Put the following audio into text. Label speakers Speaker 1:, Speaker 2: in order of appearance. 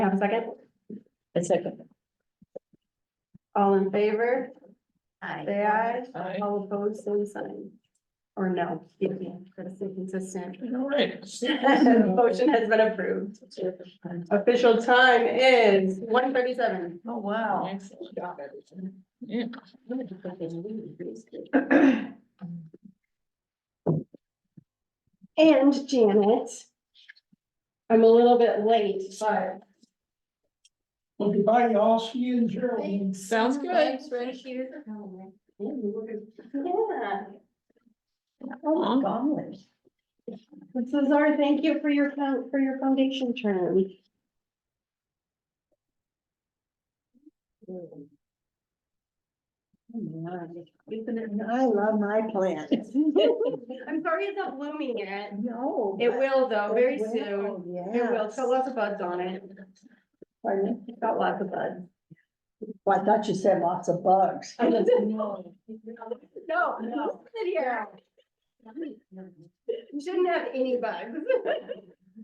Speaker 1: have a second?
Speaker 2: A second.
Speaker 1: All in favor?
Speaker 2: Aye.
Speaker 1: Say aye.
Speaker 3: Aye.
Speaker 1: All opposed, same sign. Or no, excuse me, gotta stay consistent.
Speaker 3: All right.
Speaker 1: Motion has been approved. Official time is one thirty-seven.
Speaker 2: Oh, wow.
Speaker 3: Excellent job, everyone. Yeah.
Speaker 1: And Janet. I'm a little bit late, but
Speaker 4: Well, goodbye, y'all. See you in Germany.
Speaker 3: Sounds good. Aw.
Speaker 1: yeah, this is our thank you for your, fo- for your foundation term.
Speaker 2: I love my plants.
Speaker 1: I'm sorry it's not blooming yet.
Speaker 2: No.
Speaker 1: It will though, very
Speaker 2: It
Speaker 1: soon.
Speaker 2: will,
Speaker 1: It will,
Speaker 2: yes.
Speaker 1: it's got lots of buds on it.
Speaker 2: Pardon?
Speaker 1: It's got lots of buds.
Speaker 2: Well, I thought you said lots of bugs.
Speaker 1: No, no. Sit here. You shouldn't have any bugs.